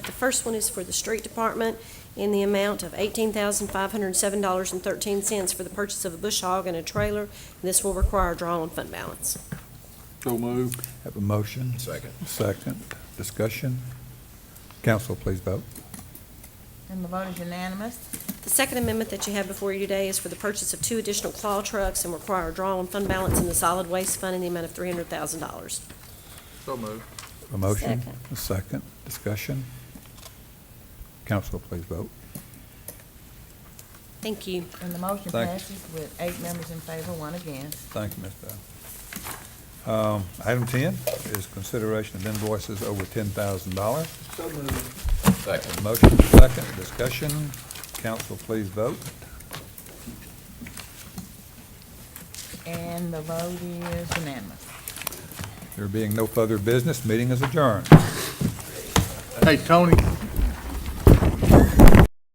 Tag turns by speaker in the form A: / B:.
A: The first one is for the street department in the amount of eighteen thousand five hundred and seven dollars and thirteen cents for the purchase of a bush hog and a trailer. This will require a draw on fund balance.
B: So move.
C: Have a motion?
D: Second.
C: Second. Discussion? Council, please vote.
E: And the vote is unanimous.
A: The second amendment that you have before you today is for the purchase of two additional claw trucks and require a draw on fund balance in the solid waste fund in the amount of three hundred thousand dollars.
D: So move.
C: A motion? A second. Discussion? Council, please vote.
A: Thank you.
E: And the motion
C: Thank you.
E: passes with eight members in favor, one against.
C: Thank you, Ms. Bell. Um, Item 10 is consideration of invoices over $10,000.
B: So move.
D: Second.
C: Motion second, discussion. Council, please vote.
E: And the vote is unanimous.
C: There being no further business, meeting is adjourned.
D: Hey, Tony,